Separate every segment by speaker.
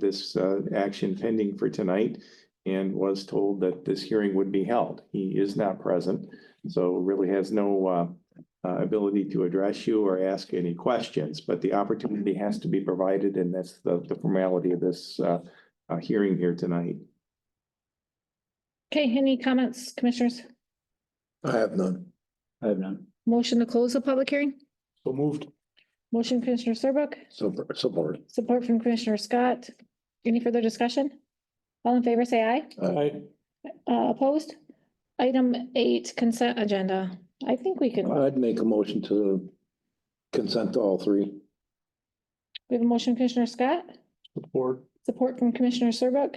Speaker 1: this uh, action pending for tonight and was told that this hearing would be held. He is not present, so really has no uh, uh, ability to address you or ask any questions, but the opportunity has to be provided, and that's the the formality of this uh, uh, hearing here tonight.
Speaker 2: Okay, any comments, commissioners?
Speaker 3: I have none.
Speaker 4: I have none.
Speaker 2: Motion to close the public hearing?
Speaker 1: So moved.
Speaker 2: Motion Commissioner Serbuk,
Speaker 3: So support.
Speaker 2: support from Commissioner Scott. Any further discussion? All in favor, say aye.
Speaker 3: I,
Speaker 2: Uh, opposed? Item eight, consent agenda. I think we can,
Speaker 3: I'd make a motion to consent to all three.
Speaker 2: we have a motion Commissioner Scott,
Speaker 3: Support.
Speaker 2: support from Commissioner Serbuk.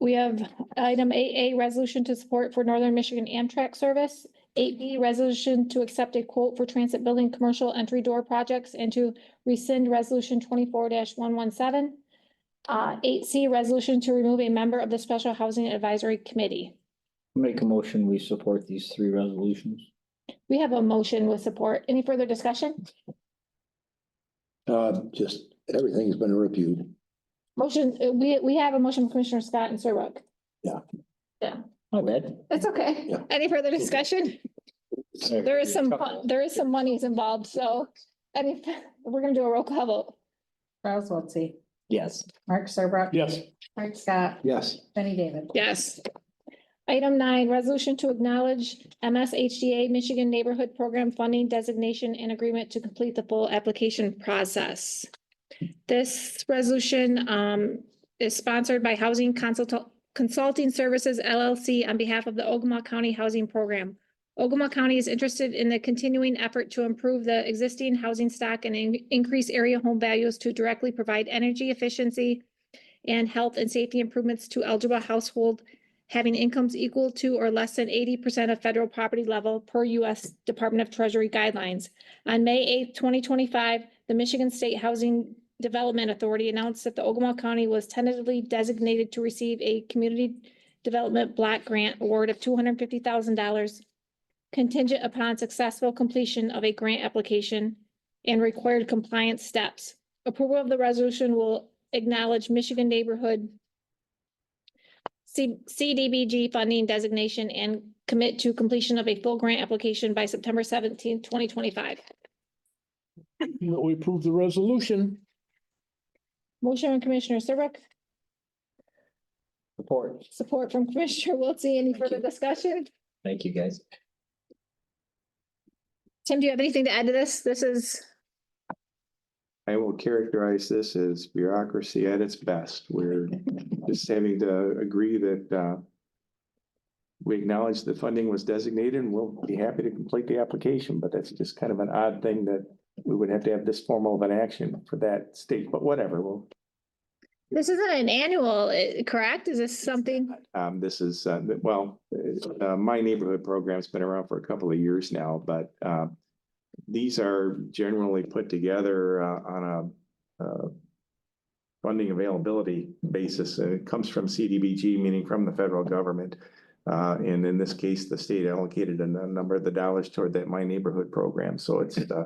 Speaker 2: We have item eight A, resolution to support for Northern Michigan Amtrak service. Eight B, resolution to accept a quote for transit building commercial entry door projects and to rescind resolution twenty-four one one seven. Uh, eight C, resolution to remove a member of the Special Housing Advisory Committee.
Speaker 4: Make a motion, we support these three resolutions.
Speaker 2: We have a motion with support. Any further discussion?
Speaker 3: Uh, just, everything's been reviewed.
Speaker 2: Motion, uh, we, we have a motion from Commissioner Scott and Serbuk.
Speaker 4: My bad.
Speaker 2: That's okay.
Speaker 3: Yeah.
Speaker 2: Any further discussion? There is some, fun- there is some monies involved, so, any, we're gonna do a roll call vote.
Speaker 5: Charles Wiltie,
Speaker 4: Yes.
Speaker 5: Mark Serbrook.
Speaker 3: Yes.
Speaker 5: Frank Scott,
Speaker 3: Yes,
Speaker 5: Jenny David.
Speaker 2: Yes. Item nine, resolution to acknowledge MSHDA Michigan Neighborhood Program Funding Designation and Agreement to complete the full application process. This resolution um, is sponsored by Housing Consult- Consulting Services LLC on behalf of the Ogama County Housing Program. Ogama County is interested in the continuing effort to improve the existing housing stock and in- increase area home values to directly provide energy efficiency and health and safety improvements to eligible household having incomes equal to or less than eighty percent of federal property level per U.S. Department of Treasury guidelines. On May eighth, twenty twenty-five, the Michigan State Housing Development Authority announced that the Ogama County was tentatively designated to receive a community development block grant award of two hundred and fifty thousand dollars contingent upon successful completion of a grant application and required compliance steps. Approval of the resolution will acknowledge Michigan Neighborhood C- CDBG funding designation and commit to completion of a full grant application by September seventeenth, twenty twenty-five.
Speaker 6: That we approve the resolution.
Speaker 2: Motion from Commissioner Serbrook,
Speaker 4: Support.
Speaker 2: support from Commissioner Wiltie. Any further discussion?
Speaker 4: Thank you, guys.
Speaker 2: Tim, do you have anything to add to this? This is,
Speaker 1: I will characterize this as bureaucracy at its best. We're just having to agree that uh, we acknowledge the funding was designated and we'll be happy to complete the application, but that's just kind of an odd thing that we would have to have this formal of an action for that state, but whatever, well,
Speaker 2: this isn't an annual, eh, correct? Is this something?
Speaker 1: Um, this is, uh, th- well, uh, my neighborhood program's been around for a couple of years now, but, uh, these are generally put together, uh, on a, uh, funding availability basis. Uh, It comes from CDBG, meaning from the federal government. Uh, and in this case, the state allocated a n- number of the dollars toward that My Neighborhood program, so it's, uh,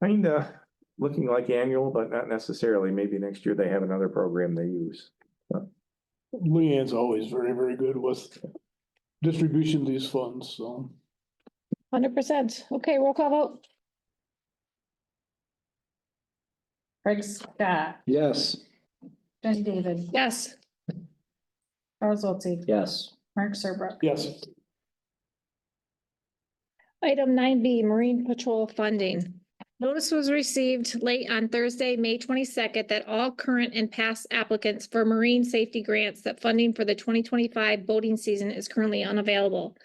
Speaker 1: kinda looking like annual, but not necessarily. Maybe next year they have another program they use.
Speaker 6: Leanne's always very, very good with distribution of these funds, so.
Speaker 2: Hundred percent. Okay, roll call vote.
Speaker 5: Frank Scott,
Speaker 3: yes.
Speaker 5: Jenny David,
Speaker 2: Yes.
Speaker 5: Charles Wiltie,
Speaker 4: Yes.
Speaker 5: Mark Serbrook.
Speaker 6: Yes,
Speaker 2: Item nine B, Marine Patrol funding. Notice was received late on Thursday, May twenty-second, that all current and past applicants for marine safety grants that funding for the twenty twenty-five boating season is currently unavailable.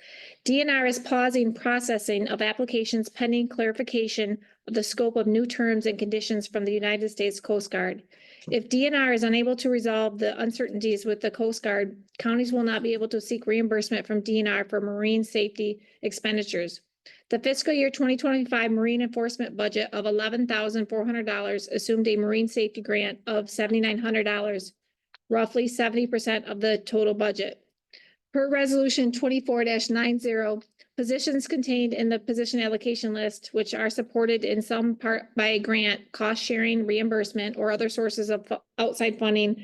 Speaker 2: DNR is pausing processing of applications pending clarification of the scope of new terms and conditions from the United States Coast Guard. If DNR is unable to resolve the uncertainties with the Coast Guard, counties will not be able to seek reimbursement from DNR for marine safety expenditures. The fiscal year twenty twenty-five marine enforcement budget of eleven thousand four hundred dollars assumed a marine safety grant of seventy-nine hundred dollars, roughly seventy percent of the total budget. Per resolution twenty-four nine zero, Positions contained in the position allocation list, which are supported in some part by a grant, cost sharing reimbursement, or other sources of fu- outside funding